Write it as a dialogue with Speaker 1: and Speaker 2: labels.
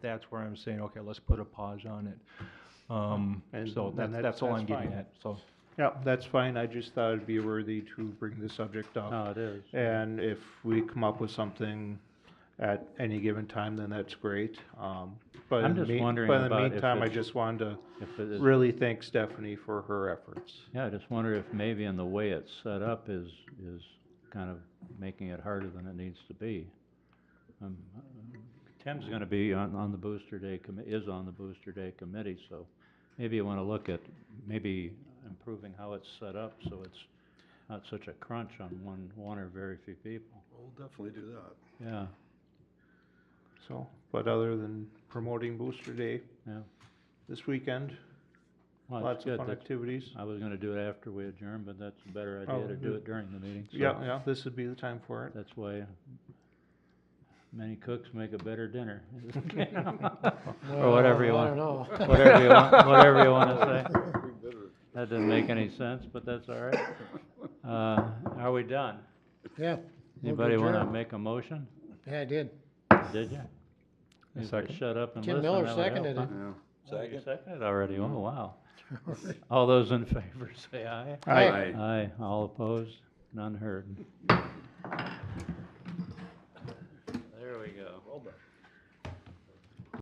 Speaker 1: that's where I'm saying, okay, let's put a pause on it. Um,
Speaker 2: And-
Speaker 1: so
Speaker 2: and
Speaker 1: that's,
Speaker 2: that-
Speaker 1: that's all
Speaker 2: that's
Speaker 1: I'm getting
Speaker 2: fine.
Speaker 1: at, so.
Speaker 2: Yeah, that's fine, I just thought it'd be worthy to bring the subject up.
Speaker 3: No, it is.
Speaker 2: And if we come up with something at any given time, then that's great. Um, But
Speaker 3: I'm
Speaker 2: in the
Speaker 3: just
Speaker 2: mean-
Speaker 3: wondering
Speaker 2: But in the
Speaker 3: about if
Speaker 2: meantime, I
Speaker 3: it's-
Speaker 2: just wanted
Speaker 3: If it
Speaker 2: to
Speaker 3: is,
Speaker 2: really thank Stephanie for her efforts.
Speaker 3: yeah, I just wonder if maybe in the way it's set up is, is kind of making it harder than it needs to be. Um, Tim's gonna be on, on the Booster Day commi, is on the Booster Day committee, so maybe you wanna look at, maybe improving how it's set up so it's not such a crunch on one, one or very few people.
Speaker 4: We'll definitely do that.
Speaker 3: Yeah,
Speaker 2: So, but other than promoting Booster Day
Speaker 3: yeah.
Speaker 2: this weekend,
Speaker 3: Well, that's
Speaker 2: lots of
Speaker 3: good.
Speaker 2: fun
Speaker 3: That's-
Speaker 2: activities.
Speaker 3: I was gonna do it after we adjourned, but that's a better
Speaker 2: Oh,
Speaker 3: idea to do
Speaker 2: yeah.
Speaker 3: it during the meeting, so.
Speaker 2: Yeah, yeah, this would be the time for it.
Speaker 3: That's why many cooks make a better dinner. Or
Speaker 5: Well,
Speaker 3: whatever you
Speaker 5: Oh, I
Speaker 3: want,
Speaker 5: don't know.
Speaker 3: whatever you want, whatever you wanna say. That doesn't make any sense, but that's all right. Uh, are we done?
Speaker 5: Yeah.
Speaker 3: Anybody wanna
Speaker 5: adjourn.
Speaker 3: make a motion?
Speaker 5: Yeah, I did.
Speaker 3: Did you? You could
Speaker 1: second.
Speaker 3: Shut up and
Speaker 5: Tim
Speaker 3: listen,
Speaker 5: Miller
Speaker 3: that would help,
Speaker 5: seconded
Speaker 3: huh?
Speaker 5: it.
Speaker 4: Yeah.
Speaker 3: Oh, you seconded already, oh, wow. All those in favor say aye.
Speaker 5: Aye.
Speaker 4: Aye.
Speaker 3: Aye, all opposed, none heard.